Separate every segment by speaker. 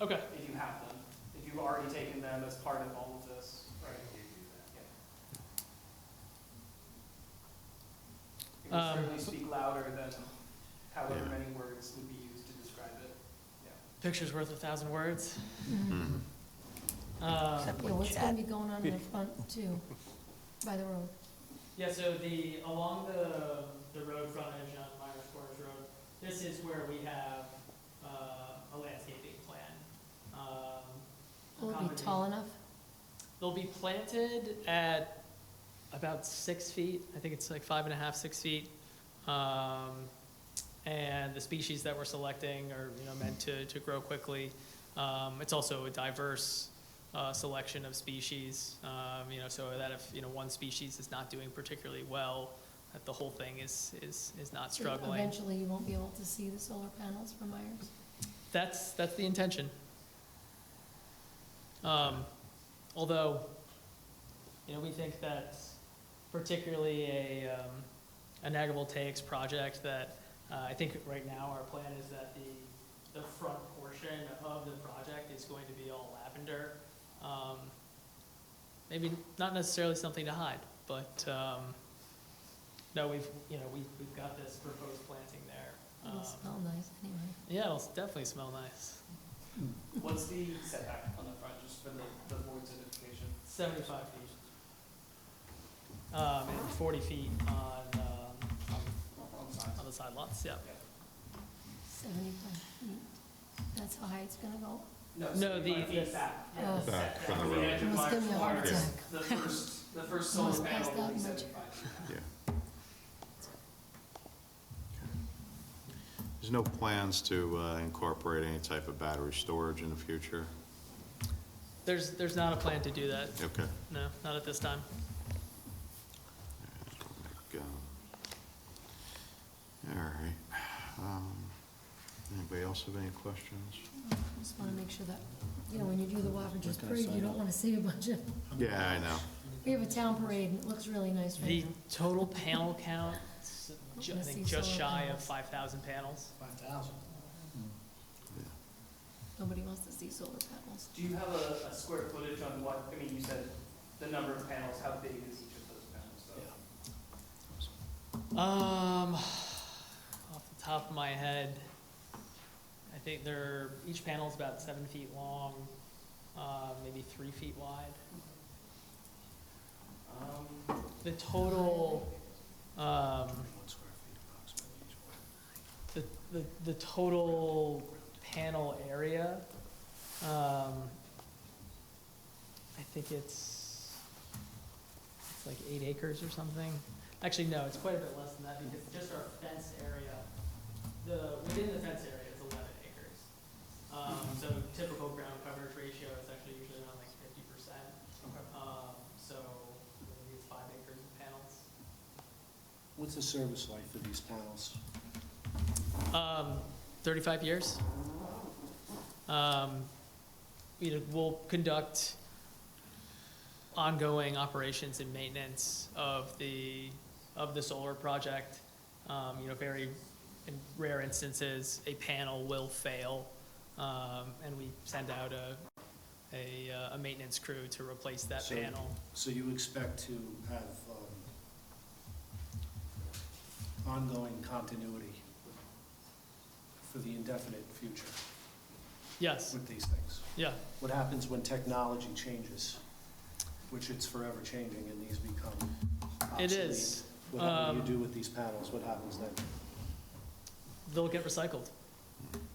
Speaker 1: Okay,
Speaker 2: if you have them, if you've already taken them as part of all of this, right? It would
Speaker 1: Um,
Speaker 2: certainly speak louder than however
Speaker 3: Yeah.
Speaker 2: many words would be used to describe it.
Speaker 1: picture's worth a thousand words.
Speaker 3: Mhm.
Speaker 1: Um,
Speaker 4: Yeah, what's gonna be going on in the front too, by the road?
Speaker 1: Yeah, so the, along the, the road frontage on Myers Corners Road, this is where we have, uh, a landscaping plan. Um,
Speaker 4: Will it be
Speaker 1: accommodating-
Speaker 4: tall enough?
Speaker 1: They'll be planted at about six feet, I think it's like five and a half, six feet. Um, And the species that we're selecting are, you know, meant to, to grow quickly. Um, It's also a diverse uh, selection of species, um, you know, so that if, you know, one species is not doing particularly well, that the whole thing is, is, is not
Speaker 4: So
Speaker 1: struggling.
Speaker 4: Eventually, you won't be able to see the solar panels from Myers.
Speaker 1: That's, that's the intention. Um, Although, you know, we think that particularly a, um, an agrivoltaics project that, uh, I think right now our plan is that the, the front portion of the project is going to be all lavender. Um, Maybe not necessarily something to hide, but, um, no, we've, you know, we've, we've got this proposed planting there.
Speaker 4: It'll
Speaker 1: Um,
Speaker 4: smell nice anyway.
Speaker 1: yeah, it'll s- definitely smell nice.
Speaker 2: What's the setback on the front, just for the, the board's identification?
Speaker 1: Seventy-five feet. Um, and forty feet on, um, on-
Speaker 2: On the side.
Speaker 1: on the side lots, yeah.
Speaker 4: Seventy-five feet. That's how high it's gonna go?
Speaker 1: No, the-
Speaker 2: 75 feet
Speaker 1: the-
Speaker 2: back.
Speaker 4: Oh.
Speaker 3: Back
Speaker 2: Yeah,
Speaker 3: from the
Speaker 2: the
Speaker 3: road.
Speaker 2: edge of
Speaker 4: Almost
Speaker 2: my
Speaker 4: give me a heart
Speaker 2: corners,
Speaker 4: attack.
Speaker 2: The first, the first
Speaker 4: Almost
Speaker 2: solar panel
Speaker 4: passed
Speaker 2: will
Speaker 4: out
Speaker 2: be
Speaker 4: much.
Speaker 2: 75 feet back.
Speaker 3: There's no plans to uh, incorporate any type of battery storage in the future?
Speaker 1: There's, there's not a plan to do that,
Speaker 3: Okay.
Speaker 1: no, not at this time.
Speaker 3: Go. All right. Um, Anybody else have any questions?
Speaker 4: Just wanna make sure that, you know, when you do the Wafforders parade, you don't wanna see a bunch of,
Speaker 3: Yeah, I know.
Speaker 4: we have a town parade and it looks really nice right
Speaker 1: The
Speaker 4: now.
Speaker 1: total panel count, s- ju- I
Speaker 4: Let's
Speaker 1: think
Speaker 4: see
Speaker 1: just
Speaker 4: solar
Speaker 1: shy of
Speaker 4: panels.
Speaker 1: five thousand panels.
Speaker 4: Nobody wants to see solar panels.
Speaker 2: Do you have a, a square footage on what, I mean, you said the number of panels, how big is each of those panels? though?
Speaker 1: Um, off the top of my head, I think they're, each panel's about seven feet long, uh, maybe three feet wide.
Speaker 2: Um,
Speaker 1: The total, um, the, the, the total panel area, um, I think it's, it's like eight acres or something. Actually, no, it's quite a bit less than that because just our fence area, the, within the fence area is eleven acres. Um, so typical ground coverage ratio is actually usually around like fifty percent.
Speaker 2: okay.
Speaker 1: Um, so maybe it's five acres of panels.
Speaker 5: What's the service life for these panels?
Speaker 1: Um, 35 years. Um, you know, we'll conduct ongoing operations and maintenance of the, of the solar project. Um, you know, very, in rare instances, a panel will fail, um, and we send out a, a, uh, a maintenance crew to replace that
Speaker 5: So-
Speaker 1: panel.
Speaker 5: So you expect to have um, ongoing continuity for the indefinite future
Speaker 1: Yes,
Speaker 5: with these things?
Speaker 1: yeah.
Speaker 5: What happens when technology changes, which it's forever changing and these become
Speaker 1: It
Speaker 5: obsolete?
Speaker 1: is.
Speaker 5: What do you
Speaker 1: Um,
Speaker 5: do with these panels? What happens then?
Speaker 1: They'll get recycled.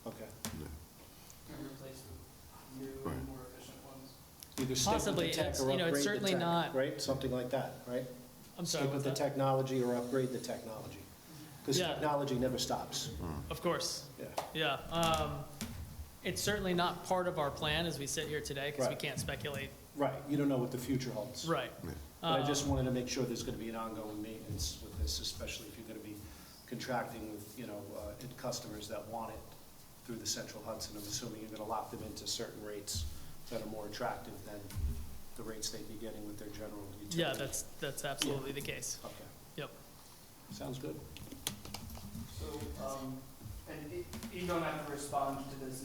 Speaker 5: Okay.
Speaker 2: And replace the new,
Speaker 3: Right.
Speaker 2: more efficient ones?
Speaker 5: Either stick with
Speaker 1: Possibly,
Speaker 5: the tech
Speaker 1: it's-
Speaker 5: or
Speaker 1: you know, it's
Speaker 5: upgrade the
Speaker 1: certainly
Speaker 5: tech,
Speaker 1: not-
Speaker 5: Right? Something like that, right?
Speaker 1: I'm sorry,
Speaker 5: Stick with
Speaker 1: what's
Speaker 5: the
Speaker 1: that?
Speaker 5: technology or upgrade the technology. Because
Speaker 1: Yeah.
Speaker 5: technology never stops.
Speaker 1: Of course.
Speaker 5: Yeah.
Speaker 1: Yeah, um, it's certainly not part of our plan as we sit here today, because we
Speaker 5: Right.
Speaker 1: can't speculate.
Speaker 5: Right, you don't know what the future holds.
Speaker 1: Right.
Speaker 3: Yeah.
Speaker 5: But I just
Speaker 1: Um,
Speaker 5: wanted to make sure there's going to be an ongoing maintenance with this, especially if you're going to be contracting with, you know, uh, and customers that want it through the Central Hudson. I'm assuming you're going to lock them into certain rates that are more attractive than the rates they'd be getting with their general utility.
Speaker 1: Yeah, that's, that's absolutely the case.
Speaker 5: Okay,
Speaker 1: Yep.
Speaker 5: sounds good.
Speaker 2: e, So, um, and y- you don't have to respond to this